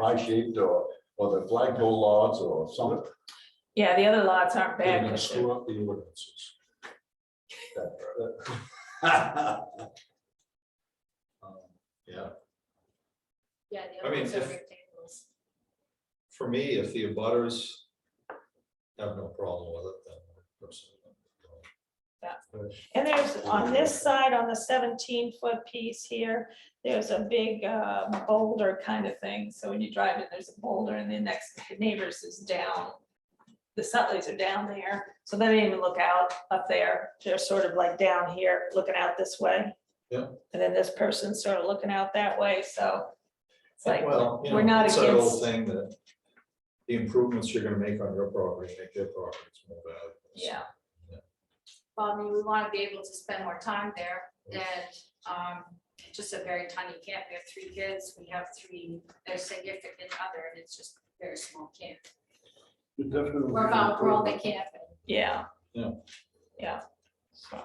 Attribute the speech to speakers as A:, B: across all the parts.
A: pie shaped or, or the flagpole lots or something.
B: Yeah, the other lots aren't bad.
A: And then
B: but they're-
A: screw up the ordinances. That- that- Um, Yeah,
C: Yeah, the
D: I
C: other
D: mean,
C: ones are
D: if-
C: rectangles.
D: For me, if the abutters have no problem with it, then. personally, no.
B: And there's, on this side, on the seventeen foot piece here, there's a big uh, boulder kind of thing. So when you drive in, there's a boulder and the next neighbors is down. The Sutleys are down there, so they don't even look out up there. They're sort of like down here, looking out this way.
D: Yeah.
B: And then this person's sort of looking out that way, so. It's like,
D: Well, you
B: we're
D: know,
B: not
D: it's that
B: against-
D: old thing that the improvements you're gonna make on your property, make their properties more valuable.
B: yeah,
C: Well, I mean, we want to be able to spend more time there and um, it's just a very tiny camp. We have three kids, we have three, their significant other, and it's just a very small camp. We're about, we're all the camp.
B: yeah.
D: Yeah.
B: Yeah. So,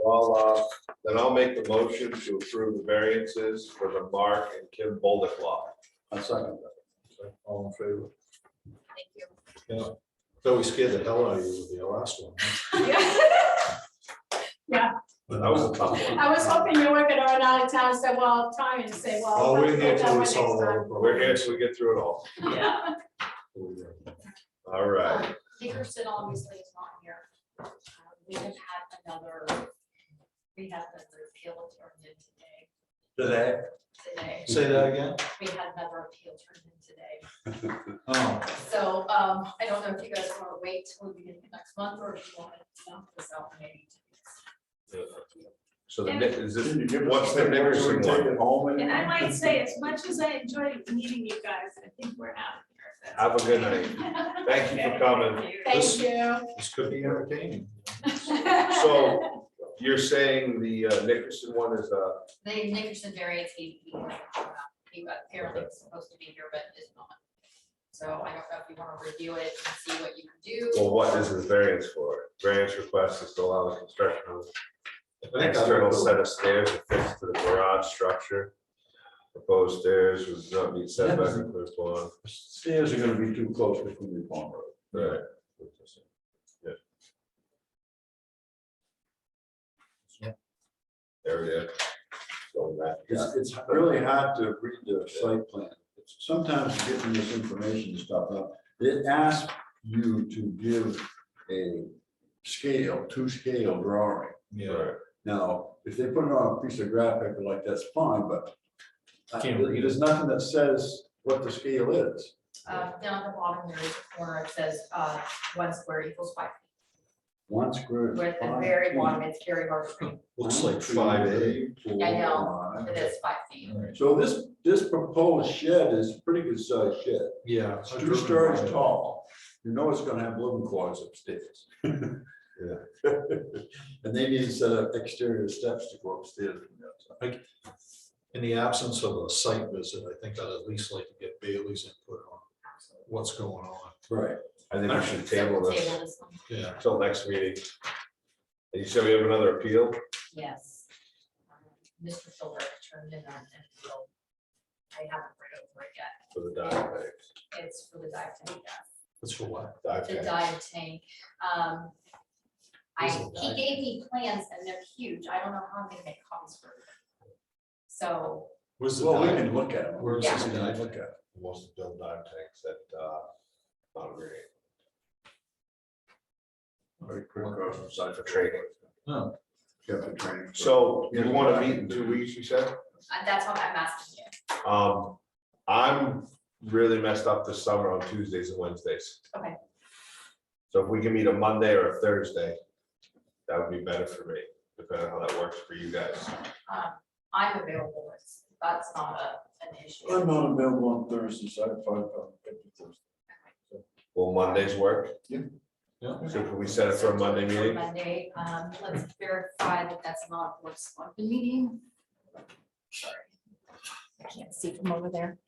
E: Well, uh, then I'll make the motion to approve the variances for the Mark and Kim Bolduc law.
A: I second that.
D: So, All in favor?
C: Thank you.
D: Yeah. Though we scared the hell out of you with the last one.
E: That was a tough one.
C: I was hoping you weren't gonna run out of town, so well, time and say, well.
D: Oh, we're
C: let's
D: here
C: do that
D: till we
C: one
D: solve
C: next
D: all
C: time.
D: the
E: We're here
D: problems.
E: till we get through it all.
B: yeah.
E: All right.
C: Dickerson obviously is not here. Uh, We have had another, we had another appeal turned in today,
A: Today.
C: today.
D: Say that again?
C: We had another appeal turned in today.
D: Oh,
C: So um, I don't know if you guys want to wait till the beginning of next month or if you want to dump this out maybe.
E: So the, ne- is this, what's the Nickerson
A: Take
E: one?
A: it home
B: And I might say, as much as I enjoyed meeting you guys, I think we're out of here. if that's
E: Have a good night.
C: Thank
E: Thank you for coming.
C: you.
D: this could be entertaining.
E: So- You're saying the uh, Nickerson one is, uh,
C: The Nickerson variance, he, he he was apparently supposed to be here, but is not. So I don't know if you want to review it and see what you can do.
E: well, what is the variance for? Variance request is to allow the construction of an
D: Next
E: external set of stairs affixed to the garage structure. Proposed stairs was not meet setback in clear lawn.
A: Stairs are gonna be too close to Quimby Pond Road.
E: Right. There we go. So that,
A: It's, it's really hard to read the site plan. It's- Sometimes getting this information and stuff up, it asks you to give a scale, two scale drawing.
D: Yeah,
E: Right.
A: Now, if they put it on a piece of graphic like that's fine, but I-
D: Can't read it.
A: there's nothing that says what the scale is.
C: Uh, down at the bottom, there is a corner, it says, uh, one square equals five.
A: One
C: feet.
A: square. is
C: We're at the
A: five
C: very
A: feet.
C: bottom, it's very hard to read,
D: looks
A: One,
D: like
A: two,
D: five A.
A: three, four,
C: I know.
A: five.
C: it is five feet.
A: So this, this proposed shed is pretty good sized shed.
D: Yeah.
A: It's two stories tall. You know it's gonna have living quarters upstairs. And they need a set of exterior steps to go upstairs. from the outside.
D: In the absence of a site visit, I think I'd at least like to get Bailey's input on what's going on.
A: Right.
E: I think we should
C: So
E: table
C: we'll
E: this
C: one.
D: Yeah,
E: until next meeting. And You said we have another appeal?
C: Yes. Um, Mr. Philbrook turned in on an appeal. I haven't read over it yet.
E: For the dive tanks.
C: It's for the dive tank, yeah,
D: that's for what?
E: Dive
C: the
E: tank.
C: dive tank. Um, I,
D: Is it
C: he
D: dive?
C: gave me plans and they're huge. I don't know how I'm gonna make copies for them. So,
D: Where's the
A: Well, we
D: dive?
A: can look at it.
D: Where's
C: this
A: We can
D: guy?
A: Look at it.
E: Most of them dive tanks at, uh, Mount Green.
A: Very quick, uh, side
E: For training.
D: Oh,
A: Get the training.
E: So you want to meet in two weeks, you said?
C: uh, that's what I'm asking you.
E: Um, I'm really messed up this summer on Tuesdays and Wednesdays.
C: Okay.
E: So if we can meet a Monday or a Thursday, that would be better for me, depending on how that works for you guys.
C: Um, I'm available, It's- that's not a, an issue.
A: I'm not available on Thursday, so I have five, uh, Thursday.
E: Will Mondays work?
D: yeah.
E: So can we set it for a Monday meeting?
C: Monday, um, let's verify that that's not a board selectman meeting. Sorry. I can't see from over there.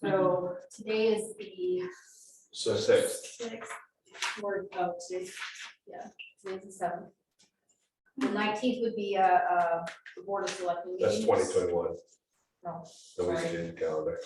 C: So today is the.
E: So six,
C: Sixth, or, oh, today's, yeah, today's the seventh. The nineteenth would be a, uh, the board of selectmen.
E: that's
C: meeting.
E: twenty twenty-one.
C: No.
E: The
C: Sorry.
E: weekend calendar.